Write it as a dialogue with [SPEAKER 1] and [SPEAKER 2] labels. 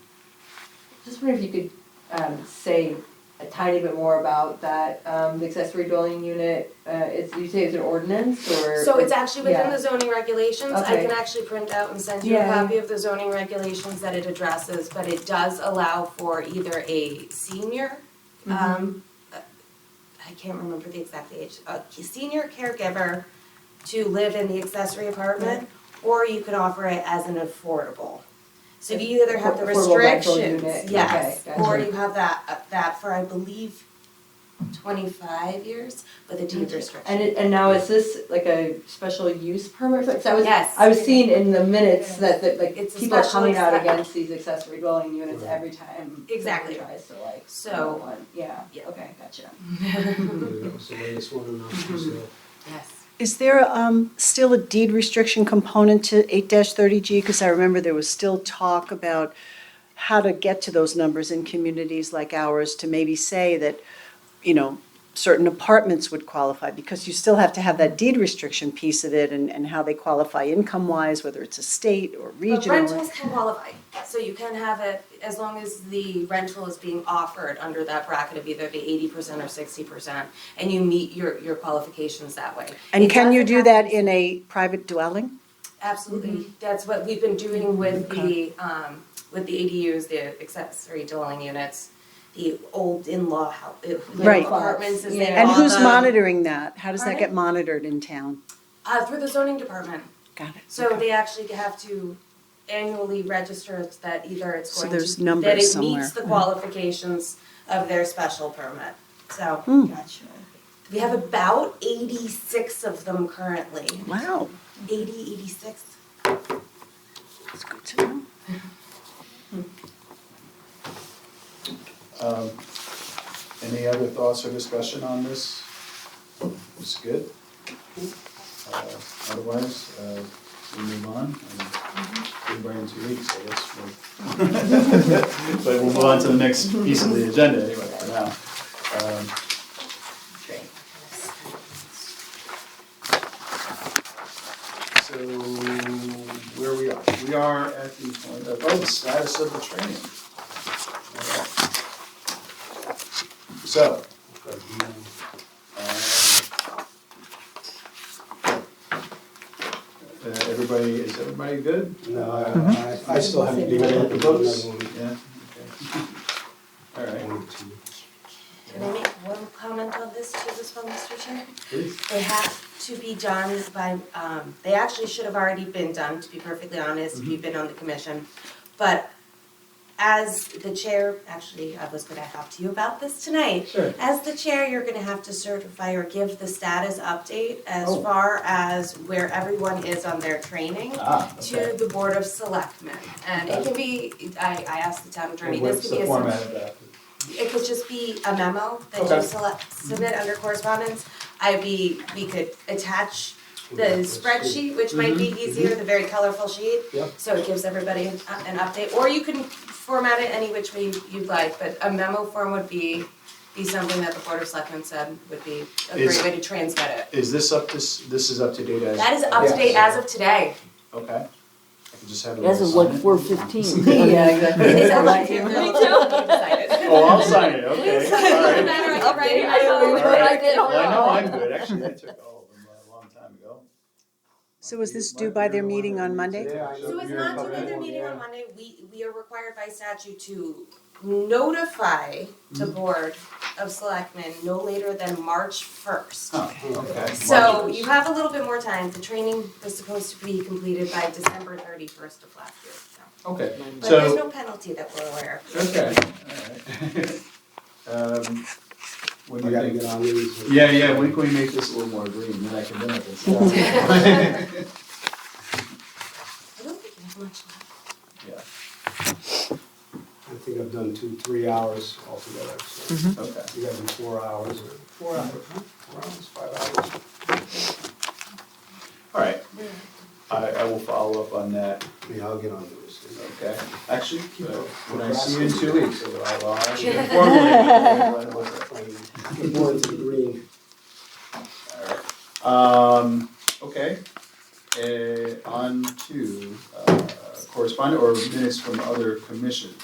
[SPEAKER 1] Just wonder if you could um, say a tiny bit more about that um, the accessory dwelling unit. Uh, it's you say it's an ordinance or
[SPEAKER 2] So it's actually within
[SPEAKER 1] yeah.
[SPEAKER 2] the zoning regulations, I
[SPEAKER 1] Okay.
[SPEAKER 2] can actually print out and send you a
[SPEAKER 1] Yeah.
[SPEAKER 2] copy of the zoning regulations that it addresses, but it does allow for either a senior,
[SPEAKER 1] Mm-hmm.
[SPEAKER 2] um, uh, I can't remember the exact age, a senior caregiver to live in the accessory apartment, or you could offer it as an affordable. So you either have the
[SPEAKER 1] Affordable rental
[SPEAKER 2] restrictions,
[SPEAKER 1] unit,
[SPEAKER 2] yes,
[SPEAKER 1] okay,
[SPEAKER 2] or
[SPEAKER 1] gotcha.
[SPEAKER 2] you have that, uh, that for, I believe, twenty-five years, with a deed restriction.
[SPEAKER 1] And it, and now is this like a special use permit? Because I was
[SPEAKER 2] Yes.
[SPEAKER 1] I was seeing in the minutes that, that like
[SPEAKER 2] It's a
[SPEAKER 1] people are
[SPEAKER 2] special
[SPEAKER 1] coming out
[SPEAKER 2] access-
[SPEAKER 1] against these accessory dwelling units every time
[SPEAKER 2] Exactly.
[SPEAKER 1] someone tries to like
[SPEAKER 2] So-
[SPEAKER 1] build one. Yeah.
[SPEAKER 2] Yeah.
[SPEAKER 1] Okay. Gotcha.
[SPEAKER 3] That was the latest one in Austin,
[SPEAKER 2] Yes.
[SPEAKER 4] Is there um, still a deed restriction component to 8-30G? Because I remember there was still talk about how to get to those numbers in communities like ours to maybe say that, you know, certain apartments would qualify, because you still have to have that deed restriction piece of it and and how they qualify income-wise, whether it's a state or
[SPEAKER 2] But
[SPEAKER 4] regional.
[SPEAKER 2] rentals can qualify, so you can have it as long as the rental is being offered under that bracket of either the eighty percent or sixty percent, and you meet your, your qualifications that way. It
[SPEAKER 4] And can you
[SPEAKER 2] doesn't
[SPEAKER 4] do
[SPEAKER 2] have
[SPEAKER 4] that
[SPEAKER 2] to-
[SPEAKER 4] in a private dwelling?
[SPEAKER 2] Absolutely, that's what we've been doing with the, um, with the ADUs, the accessory dwelling units, the old in-law house,
[SPEAKER 4] Right.
[SPEAKER 2] apartments as they
[SPEAKER 1] Yeah.
[SPEAKER 4] And
[SPEAKER 2] call
[SPEAKER 4] who's
[SPEAKER 2] them,
[SPEAKER 4] monitoring that? How does that
[SPEAKER 2] Uh, Pardon?
[SPEAKER 4] get monitored in town?
[SPEAKER 2] Uh, through the zoning department,
[SPEAKER 4] Got it.
[SPEAKER 2] So they actually have to annually register that either it's
[SPEAKER 4] So
[SPEAKER 2] going to.
[SPEAKER 4] there's numbers
[SPEAKER 2] That it
[SPEAKER 4] somewhere. Mm-hmm.
[SPEAKER 2] meets the qualifications of their special permit. So
[SPEAKER 4] Hmm.
[SPEAKER 1] Gotcha.
[SPEAKER 2] we have about eighty-six of them currently,
[SPEAKER 4] Wow,
[SPEAKER 2] 80, 86.
[SPEAKER 4] that's good to know.
[SPEAKER 5] Um, Any other thoughts or discussion on this? It's good. Uh, Otherwise, uh, we move on and we bring in two weeks, I guess. we'll- But we'll move on to the next piece of the agenda anyway for now. Um, So where we are, we are at the point of, oh, the status of the training. So,
[SPEAKER 3] so.
[SPEAKER 5] Um, Uh, everybody, is everybody good?
[SPEAKER 3] No, I, I- I still haven't been able to vote another one.
[SPEAKER 5] Yeah? All right.
[SPEAKER 2] Can I make one comment on this to this one, Mr. Chair?
[SPEAKER 3] Please.
[SPEAKER 2] They have to be done by, um, they actually should have already been done, to be perfectly honest,
[SPEAKER 5] Mm-hmm.
[SPEAKER 2] if you've been on the commission. But as the chair, actually, I was gonna talk to you about this tonight.
[SPEAKER 3] Sure.
[SPEAKER 2] As the chair, you're gonna have to certify or give the status update as
[SPEAKER 5] Oh.
[SPEAKER 2] far as where everyone is on their training
[SPEAKER 5] Ah, okay.
[SPEAKER 2] to the Board of Selectmen. And it can be, I, I asked the town attorney,
[SPEAKER 5] And
[SPEAKER 2] this
[SPEAKER 5] What's
[SPEAKER 2] could be
[SPEAKER 5] the
[SPEAKER 2] as
[SPEAKER 5] format of that?
[SPEAKER 2] it could just be a memo that you
[SPEAKER 5] Okay.
[SPEAKER 2] select, submit under correspondence. I'd be, we could attach the spreadsheet, which might
[SPEAKER 5] Mm-hmm.
[SPEAKER 2] be easier, the very colorful sheet.
[SPEAKER 3] Yep.
[SPEAKER 2] So it gives everybody an uh, an update, or you can format it any which way you'd like, but a memo form would be, be something that the Board of Selectmen said would be a
[SPEAKER 5] Is-
[SPEAKER 2] great way to transmit it.
[SPEAKER 5] Is this up to, s- this is up to date as?
[SPEAKER 2] That is up to date as of today.
[SPEAKER 5] Okay. I can just have it.
[SPEAKER 6] As of
[SPEAKER 5] all
[SPEAKER 6] like
[SPEAKER 5] signed.
[SPEAKER 6] four fifteen.
[SPEAKER 1] yeah. Exactly.
[SPEAKER 2] It's up to date. Decided.
[SPEAKER 5] Oh, I'll sign it, okay, all right.
[SPEAKER 6] Updated, I know what I did.
[SPEAKER 5] Well, I know I'm good, actually, I took all of them a long time ago.
[SPEAKER 4] So is this due by their meeting on Monday?
[SPEAKER 3] Yeah, I know.
[SPEAKER 2] So it's
[SPEAKER 3] You're
[SPEAKER 2] not due
[SPEAKER 3] probably-
[SPEAKER 2] at their meeting
[SPEAKER 3] yeah.
[SPEAKER 2] on Monday, we, we are required by statute to notify the Board of Selectmen no later than March first.
[SPEAKER 5] Huh, okay.
[SPEAKER 2] So you have a little bit more time, the training was supposed to be completed by December thirty-first of last year, so.
[SPEAKER 5] Okay,
[SPEAKER 2] But
[SPEAKER 5] so.
[SPEAKER 2] there's no penalty that we're aware of.
[SPEAKER 5] Okay, alright. Um, when
[SPEAKER 3] I
[SPEAKER 5] you
[SPEAKER 3] gotta
[SPEAKER 5] think,
[SPEAKER 3] get on these.
[SPEAKER 5] yeah, yeah, when can we make this a little more green, then I can limit this.
[SPEAKER 2] I don't think you have much left.
[SPEAKER 5] Yeah,
[SPEAKER 3] I think I've done two, three hours altogether, so
[SPEAKER 5] okay,
[SPEAKER 3] you gotta do four hours or. Four hours. Four hours, five hours.
[SPEAKER 5] alright. I, I will follow up on that,
[SPEAKER 3] Yeah, I'll get on those.
[SPEAKER 5] okay? Actually, keep it.
[SPEAKER 3] Well,
[SPEAKER 5] when I see you in two weeks, I'll, I'll actually
[SPEAKER 2] Yeah.
[SPEAKER 5] inform you. All
[SPEAKER 3] The board's agreeing.
[SPEAKER 5] right. Um, okay, uh, on to, uh, correspondent or minutes from other commissions.